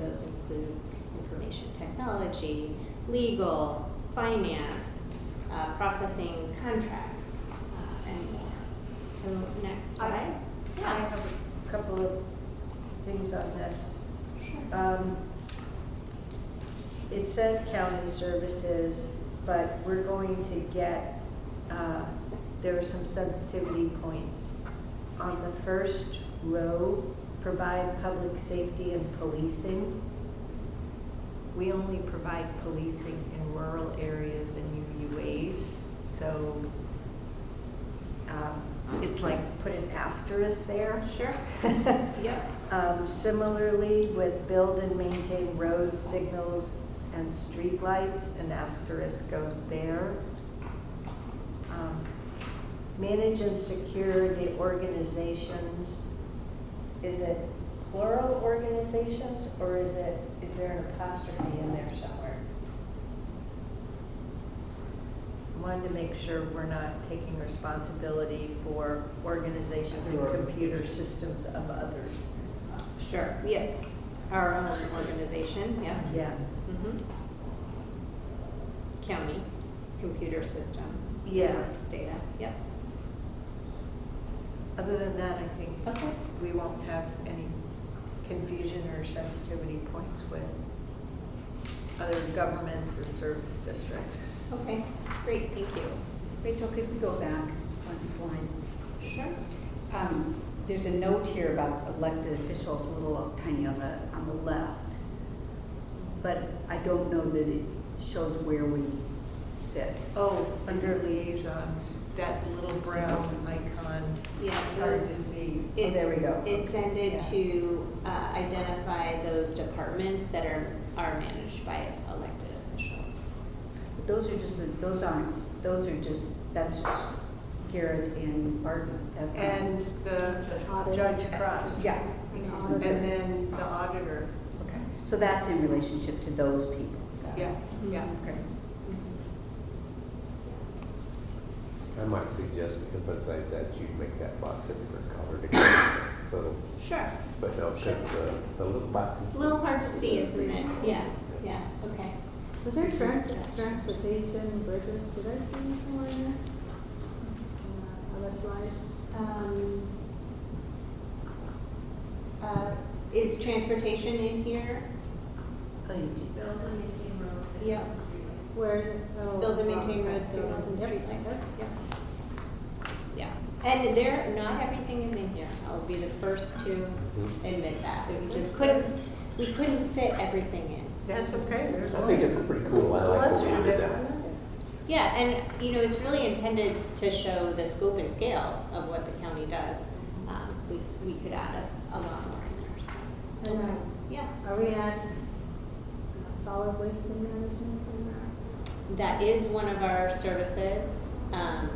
those include information technology, legal, finance, uh, processing contracts, uh, and more. So next I- slide. I Yeah, have a couple of things on this. sure. Um, It says county services, but we're going to get, uh, there are some sensitivity points. On the first row, provide public safety and policing. We only provide policing in rural areas and UUAs, so um, it's like put an asterisk there. Sure. Yep. Um, Similarly, with build and maintain roads, signals, and streetlights, an asterisk goes there. Um, Manage and secure the organizations. Is it plural organizations, or is it, is there an apostrophe in there somewhere? Wanted to make sure we're not taking responsibility for organizations and Other computer organizations. systems of others. Sure, yeah. Our own organization, yeah. Yeah, Mhm. County, computer systems. Yeah. works Data, yep. other than that, I think Okay. we won't have any confusion or sensitivity points with other governments and service districts. Okay, great, thank you. Rachel, could we go back one slide? Sure. Um, There's a note here about elected officials, a little up- tiny on the, on the left. But I don't know that it shows where we sit. Oh, under liaisons, that little brown icon, Yeah. it's hard to see. It's Oh, there we go. intended Yeah. to uh, identify those departments that are, are managed by elected officials. But Those are just, those aren't, those are just, that's just Garrett and Barton. That's not- And the Audit. Judge Cross. Yeah. And And auditor. then the auditor, Okay. So that's in relationship to those people. Got it. yeah, yeah. Mm-hmm. Okay. I might suggest emphasize that you make that box a different color to get the little, Sure. but no, because the, the little box is. A little hard to see, isn't it? Yeah, yeah, okay. Was there trans- transportation, bridges, did I see anything on there? Uh, On the slide? Um, uh, Is transportation in here? Oh, you did. Yep. Where is it? Oh, Build and maintain okay, roads, so- signals, and yep, streetlights. yep. Yep. Yeah, and there, not everything is in here. I'll be the first to admit that. We just couldn't, we couldn't fit everything in. That's okay. I think it's pretty cool. I like the way you did that. Yeah, and, you know, it's really intended to show the scope and scale of what the county does. Um, We, we could add a a lot more in there, so. Okay. Yeah, Are we at uh, solid waste and management in that? that is one of our services. Um,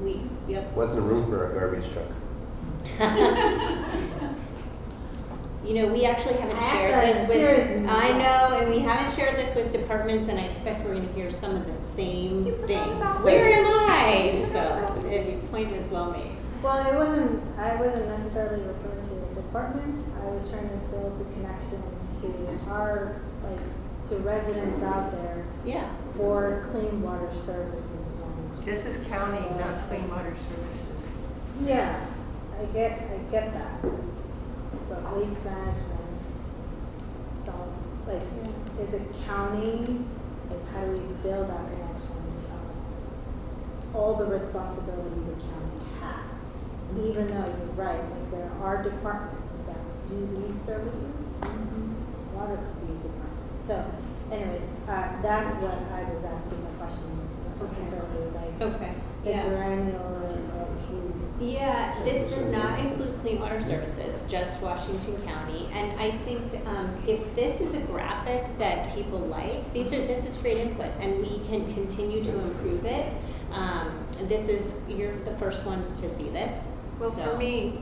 We, yep, Wasn't room for a garbage truck. You know, we actually haven't I have shared to- this with, seriously. I know, and we haven't shared this with departments, and I expect we're gonna hear some of the same You forgot things. about Where me. am I? You forgot So, about me. the point is well made. Well, it wasn't, I wasn't necessarily referring to a department, I was trying to build the connection to our, like, to residents out there Yeah, for clean water services management. This is county, not clean water services. Yeah, I get, I get that, but waste management, so, like, is it county, like, how do we build that connection? of All the responsibility the county has, even though you're right, like, there are departments that do these services, Mm-hmm. water could be a department, so, anyways, uh, that's what I was asking the question, not Okay. necessarily, like, okay, the yeah. granular, like, you Yeah, this does not include clean water services, just Washington County. And I think, um, if this is a graphic that people like, these are, this is great input, and we can continue to improve it. Um, this is, you're the first ones to see this, Well, so- for me,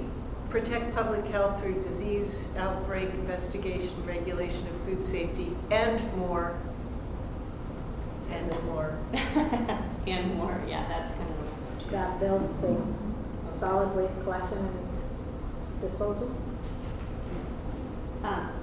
protect public health through disease outbreak investigation, regulation of food safety, and more. And more. And more, yeah, that's kind of the message. that builds the solid waste collection and disposal? Um,